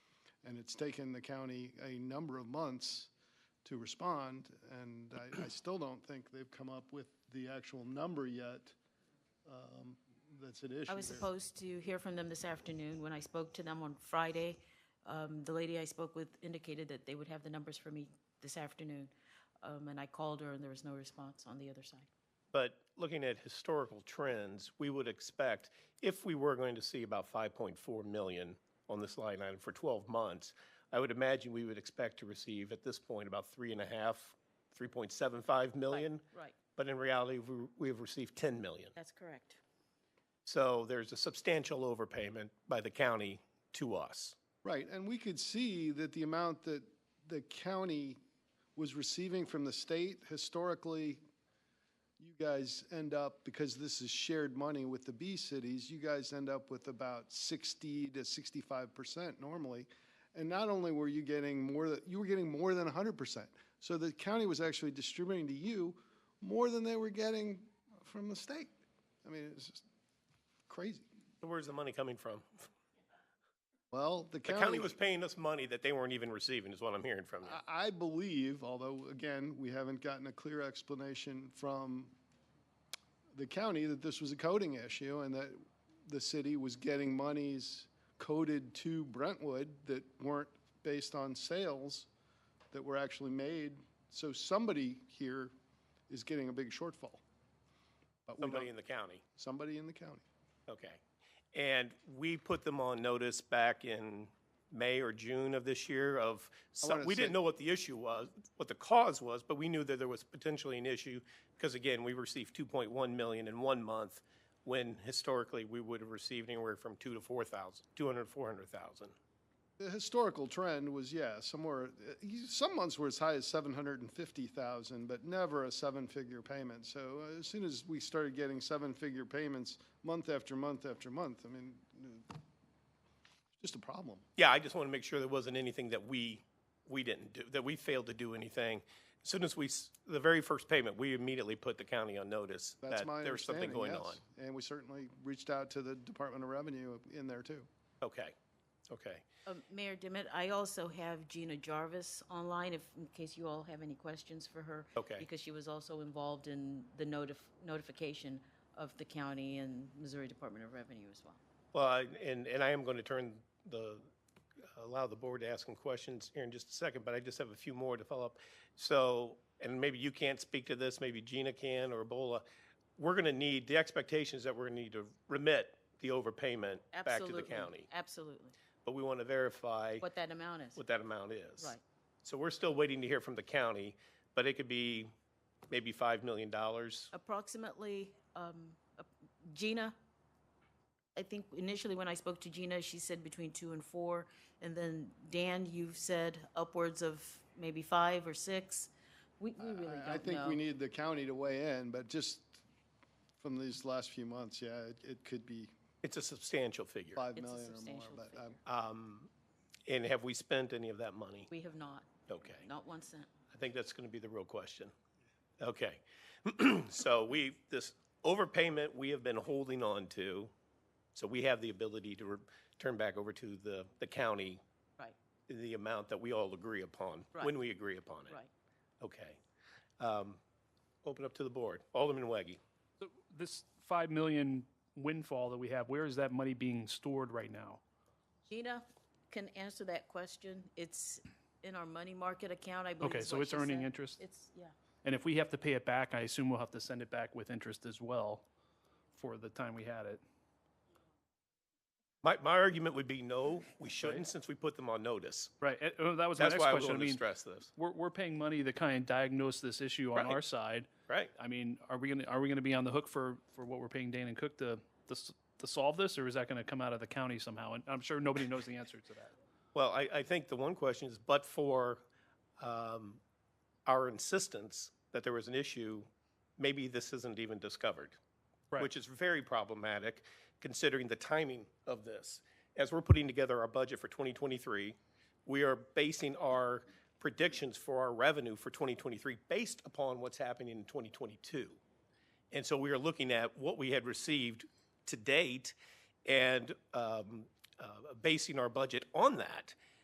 And it's taken the county a number of months to respond, and I, I still don't think they've come up with the actual number yet um, that's at issue I was here. supposed to hear from them this afternoon. When I spoke to them on Friday, um, the lady I spoke with indicated that they would have the numbers for me this afternoon. Um, and I called her and there was no response on the other side. But looking at historical trends, we would expect, if we were going to see about 5.4 million on this line item for 12 months, I would imagine we would expect to receive at this point about three and a half, 3.75 million. right. But in reality, we- we have received 10 million. That's correct. So there's a substantial overpayment by the county to us. Right, and we could see that the amount that the county was receiving from the state, historically, you guys end up, because this is shared money with the B cities, you guys end up with about sixty to sixty-five percent normally. And not only were you getting more, tha- you were getting more than hundred percent. So the county was actually distributing to you more than they were getting from the state. I mean, it's just crazy. Where's the money coming from? Well, the The county. county was paying us money that they weren't even receiving, is what I'm hearing from you. I I believe, although again, we haven't gotten a clear explanation from the county that this was a coding issue and that the city was getting monies coded to Brentwood that weren't based on sales that were actually made. So somebody here is getting a big shortfall. But we Somebody don't, in the county. somebody in the county. Okay. And we put them on notice back in May or June of this year of, some- wanna we say- didn't know what the issue was, what the cause was, but we knew that there was potentially an issue because again, we received 2.1 million in one month when historically we would have received anywhere from 2 to 4,000, 200, 400,000. The historical trend was, yeah, somewhere, uh, you- some months were as high as 750,000, but never a seven-figure payment. So uh, as soon as we started getting seven-figure payments month after month after month, I mean, uh, just a problem. Yeah, I just want to make sure there wasn't anything that we, we didn't do, that we failed to do anything. As soon as we, s- the very first payment, we immediately put the county on notice That's that my there was something understanding, going on. yes. And we certainly reached out to the Department of Revenue in there, too. Okay, okay. Um, Mayor Dimmitt, I also have Gina Jarvis online if, in case you all have any questions for her. Okay. Because she was also involved in the notif- notification of the county and Missouri Department of Revenue as well. Well, I- and, and I am going to turn the, allow the board to ask some questions here in just a second, but I just have a few more to follow up. So, and maybe you can't speak to this, maybe Gina can or Ebola. We're going to need, the expectations that we're going to need to remit the overpayment back to the Absolutely, county. Absolutely. But we want to verify What that amount is. what that amount is. Right. So we're still waiting to hear from the county, but it could be maybe $5 million. approximately, um, ap- Gina, I think initially when I spoke to Gina, she said between two and four. And then Dan, you've said upwards of maybe five or six. We, we really I- I don't think know. we need the county to weigh in, but just from these last few months, yeah, it- it could be It's a substantial figure. Um, 5 It's a million or more, substantial but um, figure. I'm- And have we spent any of that money? We have not, Okay. not one cent. I think that's going to be the real question. Okay. So we, this overpayment we have been holding on to, so we have the ability to re- turn back over to the, the county Right, the amount that we all agree upon, Right. when we agree upon it. right. Okay. Um, Open up to the board. Alderman Waggy. So This five million windfall that we have, where is that money being stored right now? Gina can answer that question. It's in our money market account, I believe. Okay, is so what it's she earning said. interest? It's, yeah, And if we have to pay it back, I assume we'll have to send it back with interest as well for the time we had it. My, my argument would be no, we shouldn't, since we put them on notice. Right, eh, oh, that was my That's next why I question. I wanted to mean, stress this, we're, we're paying money to kind of diagnose this issue on Right. our side. right? I mean, are we gonna, are we gonna be on the hook for, for what we're paying Dane and Cook to, to, s- to solve this? Or is that gonna come out of the county somehow? And I'm sure nobody knows the answer to that. Well, I, I think the one question is, but for um, our insistence that there was an issue, maybe this isn't even discovered, Right. which is very problematic considering the timing of this. As we're putting together our budget for 2023, we are basing our predictions for our revenue for 2023 based upon what's happening in 2022. And so we are looking at what we had received to date and um, uh, basing our budget on that.